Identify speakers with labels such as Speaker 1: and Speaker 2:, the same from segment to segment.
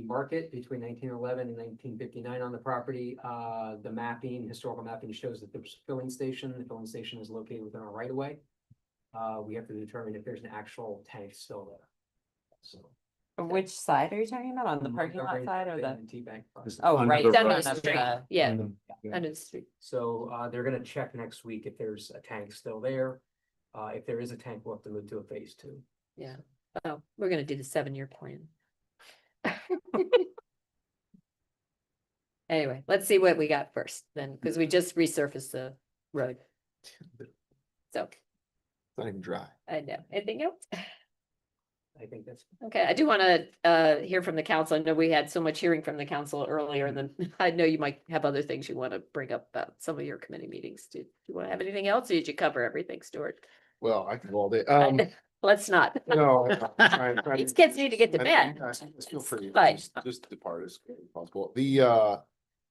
Speaker 1: market between nineteen eleven and nineteen fifty-nine on the property. Uh, the mapping, historical mapping shows that there's a filling station, the filling station is located within our right of way. Uh, we have to determine if there's an actual tank still there. So.
Speaker 2: Which side are you talking about? On the parking lot
Speaker 1: Right,
Speaker 2: side or the?
Speaker 1: and T-bank front.
Speaker 3: Just
Speaker 2: Oh,
Speaker 3: under
Speaker 2: right.
Speaker 3: the
Speaker 2: in
Speaker 3: road.
Speaker 4: Down
Speaker 2: front
Speaker 4: the
Speaker 2: of
Speaker 4: street,
Speaker 2: the-
Speaker 4: yeah,
Speaker 3: Under- yeah.
Speaker 4: under the street.
Speaker 1: So uh, they're gonna check next week if there's a tank still there. Uh, if there is a tank, we'll have to move to a phase two.
Speaker 4: Oh, we're gonna do the seven-year plan. Anyway, let's see what we got first then, because we just resurfaced the road. So,
Speaker 3: It's Not even dry.
Speaker 4: I know, anything else?
Speaker 1: I think that's,
Speaker 4: Okay, I do want to uh hear from the council. I know we had so much hearing from the council earlier and then I know you might have other things you want to bring up about some of your committee meetings. Do do you want to have anything else? Or did you cover everything, Stuart?
Speaker 3: Well, I can hold it. Um,
Speaker 4: Let's not.
Speaker 3: no. I- I- I-
Speaker 4: These kids need to get to
Speaker 3: I-
Speaker 4: bed.
Speaker 3: I- I Feel free.
Speaker 4: But-
Speaker 3: Just just depart as quickly as possible. The, uh,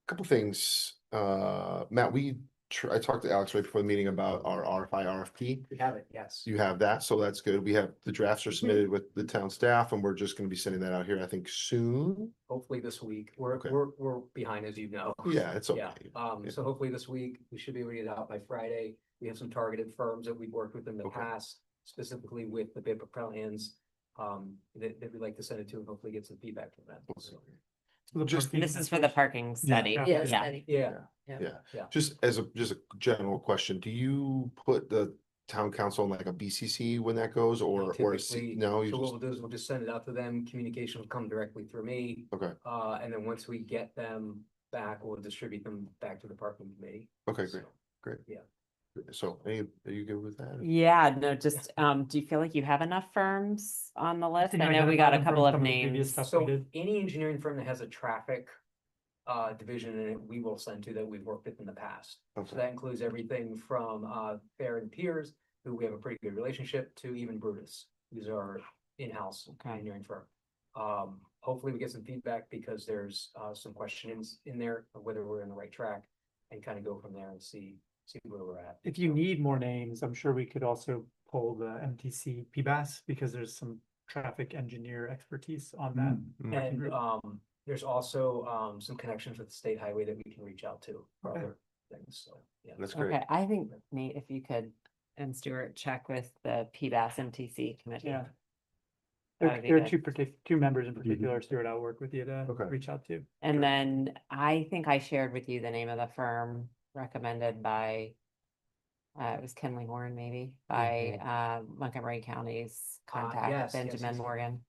Speaker 3: couple things, uh, Matt, we, tr- I talked to Alex right before the meeting about our RFI, RFP.
Speaker 1: we have it, yes.
Speaker 3: You have that, so that's good. We have, the drafts
Speaker 4: Mm-hmm.
Speaker 3: are submitted with the town staff and we're just gonna be sending that out here, I think, soon.
Speaker 1: Hopefully this week. We're,
Speaker 3: Okay.
Speaker 1: we're, we're behind, as you know.
Speaker 3: Yeah, it's okay.
Speaker 1: Yeah, um, so hopefully this week, we should be able to get it out by Friday. We have some targeted firms that we've worked with in the
Speaker 3: Okay.
Speaker 1: past, specifically with the paper plans. Um, that, that we'd like to send it to and hopefully get some feedback from them, so.
Speaker 3: Just-
Speaker 2: This is for the parking study.
Speaker 4: Yes,
Speaker 2: Yeah.
Speaker 4: Eddie.
Speaker 1: Yeah,
Speaker 3: Just as a, just a general question, do you put the town council in like a BCC when that goes or, or a C?
Speaker 1: typically,
Speaker 3: No, you
Speaker 1: so what
Speaker 3: just,
Speaker 1: we'll do is we'll just send it out to them. Communication will come directly through me.
Speaker 3: okay,
Speaker 1: Uh, and then once we get them back, we'll distribute them back to the parking committee.
Speaker 3: okay, great.
Speaker 1: So,
Speaker 3: So, are you, are you good with that?
Speaker 2: Yeah, no, just, um, do you feel like you have enough firms on the list?
Speaker 5: think
Speaker 2: I
Speaker 5: I
Speaker 2: know
Speaker 5: got
Speaker 2: we
Speaker 5: a
Speaker 2: got a
Speaker 5: bottom
Speaker 2: couple
Speaker 5: from
Speaker 2: of
Speaker 5: some of the previous
Speaker 2: names.
Speaker 5: stuff. That's
Speaker 1: So
Speaker 5: good.
Speaker 1: any engineering firm that has a traffic uh, division in it, we will send to that we've worked with in the past. So
Speaker 3: Okay,
Speaker 1: that includes everything from uh, Fair and Piers, who we have a pretty good relationship to, even Brutus, who's our in-house
Speaker 2: Okay.
Speaker 1: engineering firm. Um, hopefully we get some feedback because there's uh, some questions in there of whether we're on the right track and kind of go from there and see, see where we're at.
Speaker 5: If you need more names, I'm sure we could also pull the MTC PBAS because there's some traffic engineer expertise on that.
Speaker 3: Mm.
Speaker 5: working
Speaker 1: And
Speaker 5: group.
Speaker 1: um, there's also um, some connections with the state highway that we can reach out to for
Speaker 5: Okay.
Speaker 1: other things, so, yeah.
Speaker 3: that's great.
Speaker 2: Okay, I think Nate, if you could, and Stuart, check with the PBAS MTC committee.
Speaker 5: Yeah.
Speaker 2: That
Speaker 5: There,
Speaker 2: would be
Speaker 5: there are
Speaker 2: good.
Speaker 5: two partic- two members in particular, Stuart, I'll work with you to
Speaker 3: Mm-hmm. Okay.
Speaker 5: reach out to.
Speaker 2: And then I think I shared with you the name of the firm recommended by, uh, it was Kenley Warren maybe, by,
Speaker 4: Mm-hmm.
Speaker 2: uh, Montgomery
Speaker 1: Ah,
Speaker 2: County's
Speaker 1: yes, yes,
Speaker 2: contact,
Speaker 1: yes,
Speaker 2: Benjamin
Speaker 1: yes.
Speaker 2: Morgan.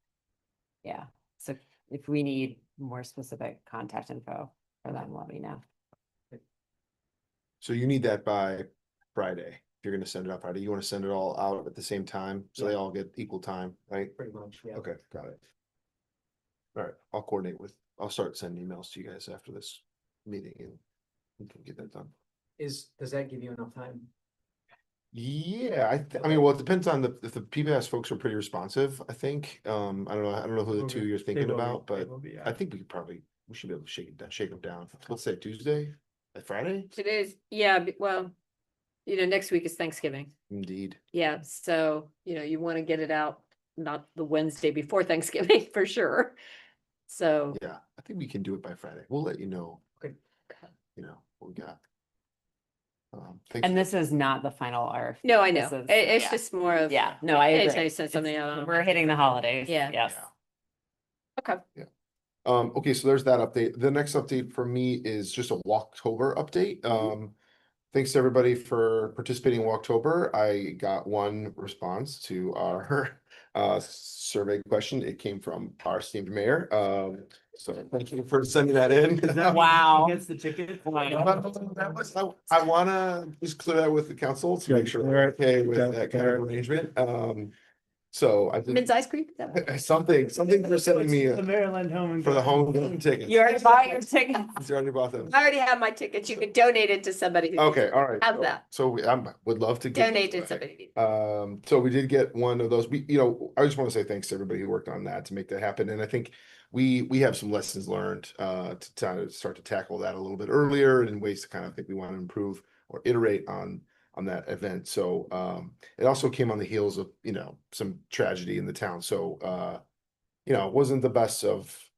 Speaker 2: Yeah, so if we need more specific contact info for them, let me know.
Speaker 3: So you need that by Friday. If you're gonna send it out Friday, you wanna send it all out at the same time, so they all get equal time, right?
Speaker 1: Pretty much, yeah.
Speaker 3: Okay, got it. All right, I'll coordinate with, I'll start sending emails to you guys after this meeting and we can get that done.
Speaker 1: Is, does that give you enough time?
Speaker 3: Yeah, I, th- I
Speaker 1: Okay.
Speaker 3: mean, well, it depends on the, if the PBS folks are pretty responsive, I think. Um, I don't know, I don't know who the two you're thinking about, but I think we could probably, we should be able to shake it down, shake them down. Let's say Tuesday, uh, Friday?
Speaker 4: Today's, yeah, b- well, you know, next week is Thanksgiving.
Speaker 3: Indeed.
Speaker 4: Yeah, so, you know, you want to get it out, not the Wednesday before Thanksgiving for sure. So,
Speaker 3: Yeah, I think we can do it by Friday. We'll let you know,
Speaker 4: Oh. Okay.
Speaker 3: you know, what we got. Um, thanks.
Speaker 2: And this is not the final RFP.
Speaker 4: no, I know.
Speaker 2: This
Speaker 4: It-
Speaker 2: is-
Speaker 4: It's
Speaker 2: yeah.
Speaker 4: just more of.
Speaker 2: Yeah, no, I
Speaker 4: Anytime you
Speaker 2: agree.
Speaker 4: send something
Speaker 2: It's-
Speaker 4: out. on-
Speaker 2: We're hitting the holidays.
Speaker 4: Yeah.
Speaker 2: Yes.
Speaker 3: Yeah.
Speaker 4: Okay.
Speaker 3: Um, okay, so there's that update. The next update for me is just a Walktober update. Um, thanks to everybody for participating in Walktober. I got one response to our uh survey question. It came from our esteemed mayor. Um, so thank you for sending that in.
Speaker 2: Wow.
Speaker 5: Gets the ticket.
Speaker 3: That was- I I wanna just clear that with the council to make sure they're okay with that kind of arrangement. Um, so I
Speaker 4: Men's
Speaker 3: did
Speaker 4: ice cream? Is that what-
Speaker 3: something, something for sending me
Speaker 5: The
Speaker 3: a-
Speaker 5: Maryland home. and
Speaker 3: for the
Speaker 5: garden.
Speaker 3: home game tickets.
Speaker 2: You already bought your ticket.
Speaker 3: He's already bought them.
Speaker 4: I already have my tickets. You can donate it to somebody. who-
Speaker 3: Okay, all right.
Speaker 4: Have that.
Speaker 3: So we, I would love to. get-
Speaker 4: Donate to somebody.
Speaker 3: Um, so we did get one of those, we, you know, I just want to say thanks to everybody who worked on that to make that happen. And I think we, we have some lessons learned, uh, to kind of start to tackle that a little bit earlier and ways to kind of think we want to improve or iterate on, on that event. So, um, it also came on the heels of, you know, some tragedy in the town. So, uh, you know, it wasn't the best of